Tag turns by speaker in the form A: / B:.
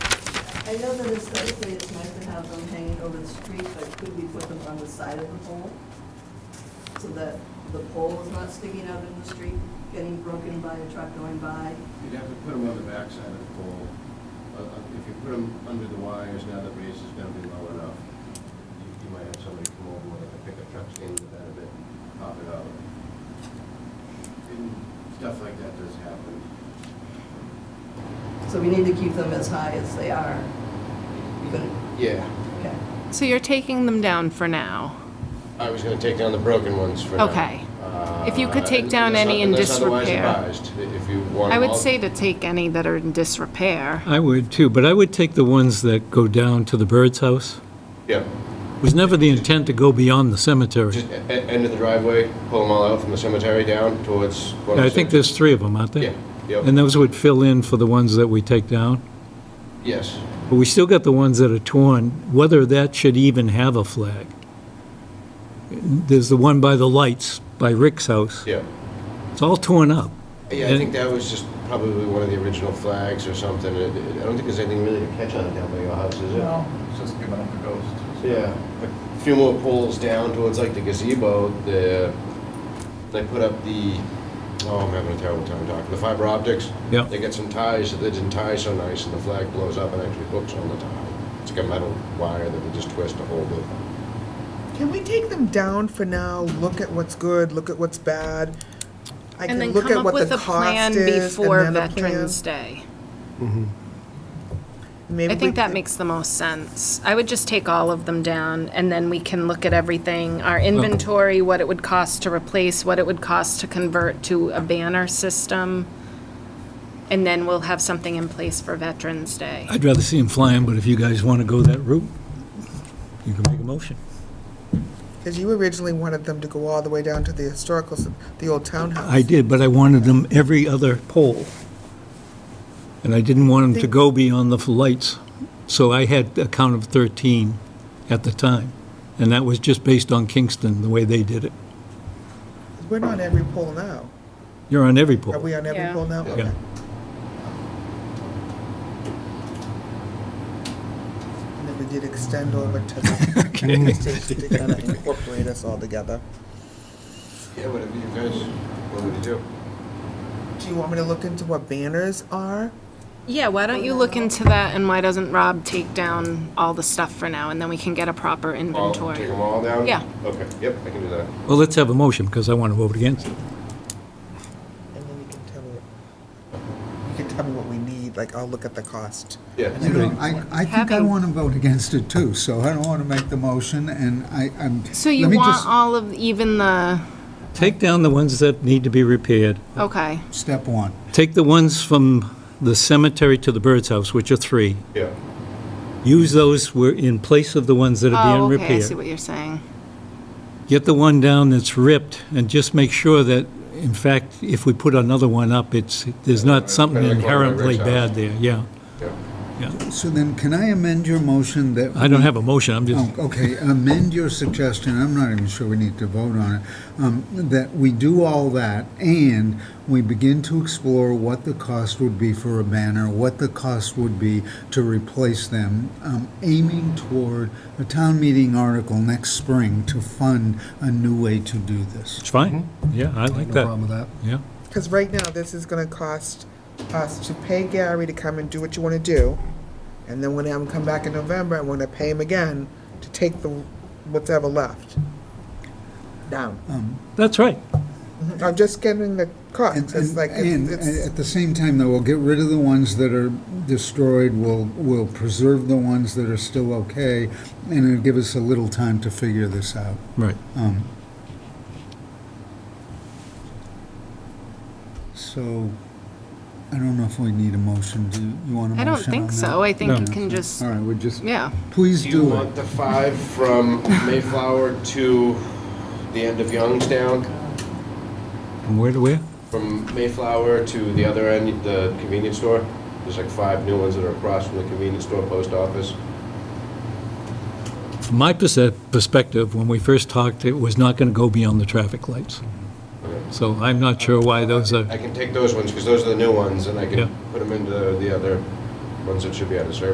A: I know that aesthetically it's nice to have them hanging over the street, but could we put them on the side of the pole? So that the pole is not sticking out in the street, getting broken by a truck going by?
B: You'd have to put them on the backside of the pole. Uh, uh, If you put them under the wires, now the base is gonna be low enough. You- You might have somebody come over with like a pickup truck stand to the end of it, and pop it out. And Stuff like that does happen.
A: So we need to keep them as high as they are. Even-
B: Yeah,
A: Okay.
C: So you're taking them down for now?
B: I was gonna take down the broken ones for Uh,
C: now. Okay. If you could take down any in disrepair.
B: If you want
C: I would say to take any that are in disrepair.
D: I would too, but I would take the ones that go down to the bird's house.
B: Yeah,
D: It was never the intent to go beyond the cemetery.
B: just e-, end of the driveway, pull them all out from the cemetery down towards
D: I think there's three of them, aren't there?
B: Yeah, yep.
D: And those would fill in for the ones that we take down.
B: Yes.
D: But we still got the ones that are torn, whether that should even have a flag. There's the one by the lights, by Rick's house.
B: Yeah.
D: It's all torn up.
B: Yeah, I
D: And-
B: think that was just probably one of the original flags or something. It- it- I don't think there's anything really to catch on down by your house, is it?
E: No, it's just giving up the ghost.
B: Yeah. A few more poles down towards like the gazebo, the, they put up the, oh, I'm having a terrible time talking, the fiber optics.
D: Yeah.
B: They got some ties that they didn't tie so nice and the flag blows up and actually hooks on the tie. It's like a metal wire that they just twist to hold it.
F: Can we take them down for now? Look at what's good, look at what's bad. I
C: And
F: can
C: then
F: look
C: come
F: at
C: up
F: what
C: with
F: the
C: a plan
F: cost is and
C: before
F: then a plan.
C: Veterans Day.
F: Maybe
C: I
F: we
C: think that
F: can-
C: makes the most sense. I would just take all of them down, and then we can look at everything, our inventory, what it would cost to replace, what it would cost to convert to a banner system, and then we'll have something in place for Veterans Day.
D: I'd rather see them flying, but if you guys want to go that route, you can make a motion.
F: Because you originally wanted them to go all the way down to the historical, s- the old townhouse.
D: I did, but I wanted them every other pole. And I didn't want them to go beyond the lights. So I had a count of 13 at the time. And that was just based on Kingston, the way they did it.
F: We're not on every poll now.
D: You're on every
F: Are
D: pole.
F: we on every
C: Yeah.
F: poll now?
D: Yeah.
F: Okay. And then we did extend over to the police station to kind of incorporate us all together.
B: Yeah, whatever you guys want me to do.
F: Do you want me to look into what banners are?
C: Yeah, why don't you look into that, and why doesn't Rob take down all the stuff for now, and then we can get a proper
B: All, take
C: inventory?
B: them all down?
C: Yeah.
B: Okay, yep, I can do that.
D: Well, let's have a motion, because I want to vote against it.
F: And then you can tell me, you can tell me what we need, like, I'll look at the cost.
B: Yeah.
G: You know, I, I think I
C: Having-
G: want to vote against it too, so I don't want to make the motion, and I, I'm.
C: So you
G: let me
C: want
G: just-
C: all of, even the,
D: Take down the ones that need to be repaired.
C: okay,
G: Step one,
D: Take the ones from the cemetery to the bird's house, which are three.
B: Yeah.
D: Use those were in place of the ones that are being
C: oh, okay, I see
D: repaired.
C: what you're saying.
D: Get the one down that's ripped, and just make sure that, in fact, if we put another one up, it's, there's not something
B: Better than going to
D: inherently
B: Rick's house.
D: bad there, yeah.
B: Yeah.
G: so then can I amend your motion that?
D: I don't have a motion, I'm just,
G: Oh, Okay, amend your suggestion, I'm not even sure we need to vote on it, um, that we do all that, and we begin to explore what the cost would be for a banner, what the cost would be to replace them, um, aiming toward a town meeting article next spring to fund a new way to do this.
D: it's fine, yeah, I like
G: Mm-hmm. No
D: that,
G: problem with that.
D: yeah.
F: Because right now, this is gonna cost us to pay Gary to come and do what you wanna do, and then when I'm come back in November, I'm gonna pay him again to take the, what's ever left. Down.
D: That's right,
F: I'm just getting the cost,
G: And,
F: it's
G: and,
F: like,
G: and
F: it's, it's-
G: at the same time, though, we'll get rid of the ones that are destroyed, we'll, we'll preserve the ones that are still okay, and it'll give us a little time to figure this out.
D: right.
G: Um, So, I don't know if we need a motion, do you- you want a motion
C: I don't think
G: on
C: so.
G: that?
C: I think
D: No.
C: you can just,
G: All right, we just,
C: yeah.
G: please
B: Do you
G: do it.
B: want the five from Mayflower to the end of Youngstown?
D: From where to where?
B: From Mayflower to the other end, the convenience store? There's like five new ones that are across from the convenience store, post office.
D: From my perse- perspective, when we first talked, it was not going to go beyond the traffic lights. So I'm not sure why those are.
B: I can take those ones, because those are the new ones, and I
D: Yeah.
B: can put them into the other ones that should be out of service.